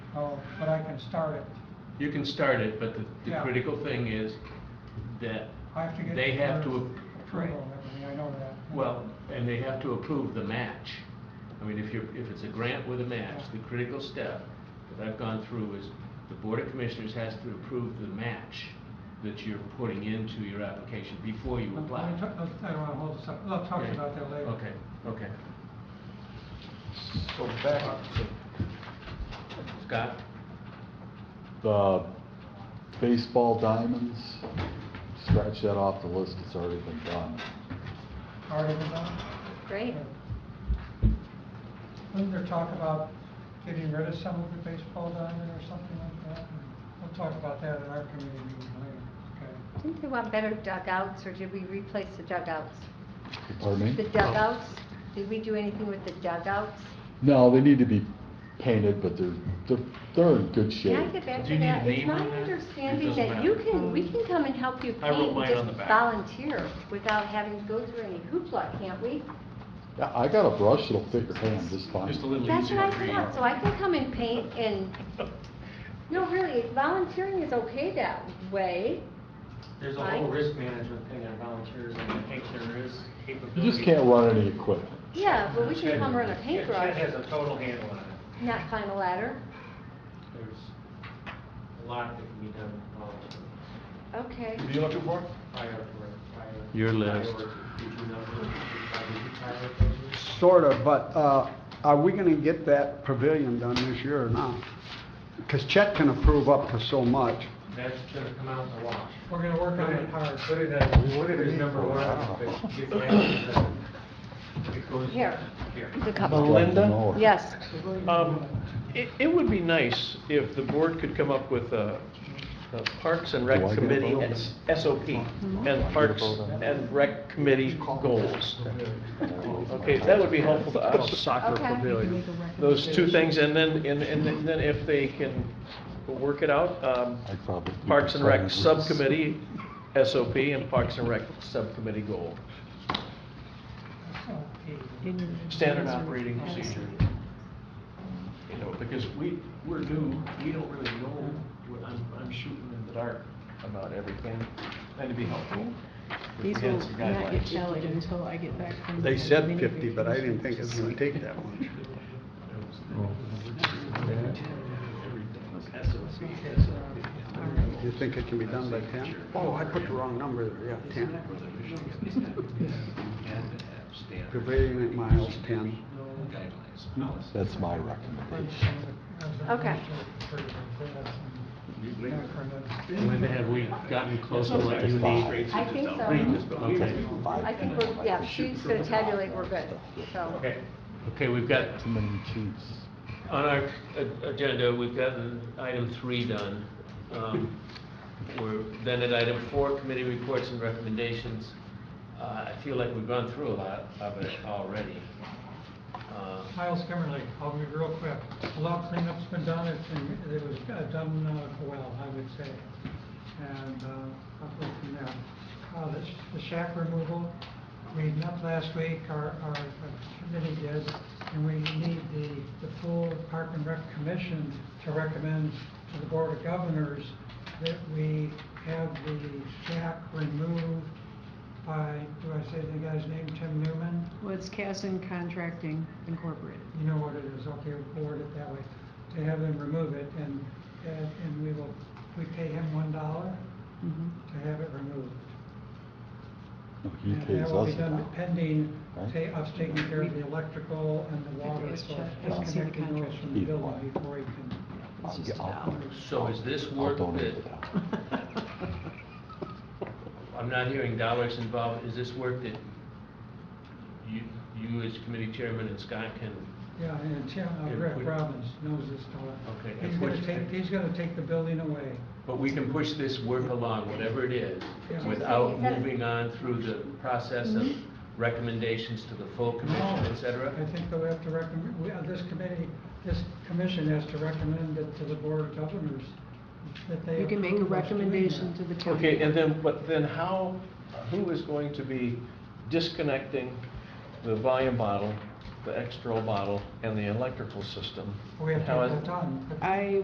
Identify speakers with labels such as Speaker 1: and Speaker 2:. Speaker 1: Oh, but I can start it.
Speaker 2: You can start it, but the, the
Speaker 1: Yeah.
Speaker 2: critical thing is that
Speaker 1: I have to get.
Speaker 2: they
Speaker 1: their
Speaker 2: have to, right,
Speaker 1: Approval and everything, I know that.
Speaker 2: well, and they have to approve the match. I mean, if you're, if it's a grant with a match, the
Speaker 1: Yeah.
Speaker 2: critical step that I've gone through is the Board of Commissioners has to approve the match that you're putting into your application before you
Speaker 1: Let me
Speaker 2: apply.
Speaker 1: ta- let's- I don't wanna hold this up, I'll talk
Speaker 2: Okay.
Speaker 1: about that later.
Speaker 2: Okay, okay.
Speaker 3: So back to
Speaker 2: Scott?
Speaker 4: The baseball diamonds, scratch that off the list, it's already been done.
Speaker 1: Already been done?
Speaker 5: Great.
Speaker 1: Wasn't there talk about getting rid of some of the baseball down there or something like that? We'll talk about that in our committee meeting later, okay?
Speaker 5: Didn't they want better dugouts, or did we replace the dugouts?
Speaker 4: Pardon
Speaker 5: The
Speaker 4: me?
Speaker 5: dugouts, did we do anything with the dugouts?
Speaker 4: No, they need to be painted, but they're, they're, they're in good shape.
Speaker 5: Can I get back
Speaker 2: Do you
Speaker 5: to
Speaker 2: need a
Speaker 5: that? It's
Speaker 2: name
Speaker 5: my
Speaker 2: on that? It
Speaker 5: understanding
Speaker 2: doesn't
Speaker 5: that you
Speaker 2: matter.
Speaker 5: can, we can come and help you
Speaker 2: I wrote
Speaker 5: paint,
Speaker 2: mine on
Speaker 5: and
Speaker 2: the
Speaker 5: just
Speaker 2: back.
Speaker 5: volunteer without having to go through any hoopla, can't we?
Speaker 4: Yeah, I got a brush that'll fit your hand just fine.
Speaker 2: Just a little
Speaker 5: That's
Speaker 2: easier
Speaker 5: what
Speaker 2: to
Speaker 5: I
Speaker 2: read.
Speaker 5: thought, so I can come and paint and, no, really, volunteering is okay that way.
Speaker 3: There's a
Speaker 5: Mike?
Speaker 3: whole risk management thing on volunteers, and I think there is capability.
Speaker 4: You just can't run any equipment.
Speaker 5: Yeah, but we
Speaker 3: Chad-
Speaker 5: can come run a
Speaker 3: yeah, Chad has
Speaker 5: paintbrush,
Speaker 3: a total handle on it.
Speaker 5: not climb a ladder.
Speaker 3: There's a lot that can be done with volunteers.
Speaker 5: Okay.
Speaker 6: What are you looking for?
Speaker 3: Prior to- prior-
Speaker 2: Your list.
Speaker 3: priority. Did you know that you probably do prioritize?
Speaker 6: Sort of, but uh, are we going to get that pavilion done this year or not? Because Chet can approve up to so much.
Speaker 3: That's gonna come out in the wash.
Speaker 1: We're gonna work on it hard.
Speaker 3: Put it as, put it as number one, but get the action done. It goes
Speaker 5: Here.
Speaker 3: Here.
Speaker 5: The couple.
Speaker 4: Melinda?
Speaker 5: Yes.
Speaker 7: Um, It, it would be nice if the board could come up with a a Parks and
Speaker 4: Do I
Speaker 7: Rec
Speaker 4: get a
Speaker 7: Committee
Speaker 4: vote?
Speaker 7: S- SOP and Parks and Rec Committee goals. Okay, that would be helpful to us.
Speaker 5: Okay.
Speaker 7: Those two things, and then, and, and then if they can work it out, um,
Speaker 4: I'd probably do
Speaker 7: Parks and Rec
Speaker 4: the same.
Speaker 7: Subcommittee SOP and Parks and Rec Subcommittee goal.
Speaker 1: So, okay.
Speaker 7: Standard operating procedure. You know, because we, we're new, we don't really know, what- I'm, I'm shooting in the dark about everything, and to be helpful. if we
Speaker 8: These will
Speaker 7: had some
Speaker 8: not get
Speaker 7: guidelines.
Speaker 8: valid until I get back from.
Speaker 6: They
Speaker 8: the
Speaker 6: said
Speaker 8: mini
Speaker 6: 50, but I
Speaker 8: vacation.
Speaker 6: didn't think it was going to take that much. You think it can be done by 10? Oh, I put the wrong number there, yeah, 10. Pavilion at miles 10.
Speaker 4: That's my recommendation.
Speaker 5: Okay.
Speaker 2: Linda, have we gotten close to what you need?
Speaker 5: I think so.
Speaker 2: Okay.
Speaker 5: Um, I think we're, yeah, she's gonna tabulate, we're good, so.
Speaker 2: Okay, okay, we've got
Speaker 4: Too many chiefs.
Speaker 2: On our a- agenda, we've gotten item three done. Um, We're then at item four, committee reports and recommendations. Uh, I feel like we've gone through a lot of it already. Uh,
Speaker 1: Miles Kimmerly, I'll be real quick. A lot of cleanup's been done, it's, been- it was uh, done uh, well, I would say. And, uh, I'll go from there. Uh, the sh- the shack removal, we met last week, our, our uh, committee did, and we need the, the full Park and Rec Commission to recommend to the Board of Governors that we have the shack removed by, do I say the guy's name, Tim Newman?
Speaker 8: Well, it's Casson Contracting Incorporated.
Speaker 1: you know what it is, okay, we'll forward it that way, to have them remove it, and, and and we will, we pay him one dollar
Speaker 8: Mhm.
Speaker 1: to have it removed.
Speaker 4: No, He
Speaker 1: And
Speaker 4: pays
Speaker 1: That will
Speaker 4: us
Speaker 1: be
Speaker 4: a
Speaker 1: done
Speaker 4: dollar.
Speaker 1: pending,
Speaker 4: right?
Speaker 1: ta- us taking care of the electrical and the water,
Speaker 8: Yes,
Speaker 1: so
Speaker 8: sure. I've seen the
Speaker 1: disconnecting those
Speaker 8: contract.
Speaker 1: from the
Speaker 4: Either
Speaker 1: building
Speaker 4: way.
Speaker 1: before he can.
Speaker 8: It's
Speaker 4: I'll
Speaker 8: just
Speaker 4: get-
Speaker 8: a
Speaker 4: I'll-
Speaker 8: dollar.
Speaker 2: So is this
Speaker 4: I'll
Speaker 2: work
Speaker 4: donate
Speaker 2: that,
Speaker 4: the dollar.
Speaker 2: I'm not hearing dollars involved, is this work that you, you as committee chairman and Scott can,
Speaker 1: Yeah, and Tim, uh,
Speaker 2: Good.
Speaker 1: Rick
Speaker 2: We-
Speaker 1: Robbins knows this fellow.
Speaker 2: Okay,
Speaker 1: He's
Speaker 2: and
Speaker 1: gonna
Speaker 2: which-
Speaker 1: take, he's gonna take the building away.
Speaker 2: but we can push this work along, whatever it is,
Speaker 1: Yeah.
Speaker 2: without
Speaker 5: Is that-
Speaker 2: moving on through the process of recommendations to the full commission, et cetera?
Speaker 1: I think they'll have to recommend, we, uh, this committee, this commission has to recommend it to the board of governors, that they
Speaker 8: You can make a
Speaker 1: approve us doing
Speaker 8: recommendation
Speaker 1: that.
Speaker 8: to the county.
Speaker 7: Okay, and then, but then how, who is going to be disconnecting the volume bottle, the external bottle, and the electrical system?
Speaker 1: We have to
Speaker 7: How
Speaker 1: have
Speaker 7: is-
Speaker 1: that done. but-
Speaker 8: I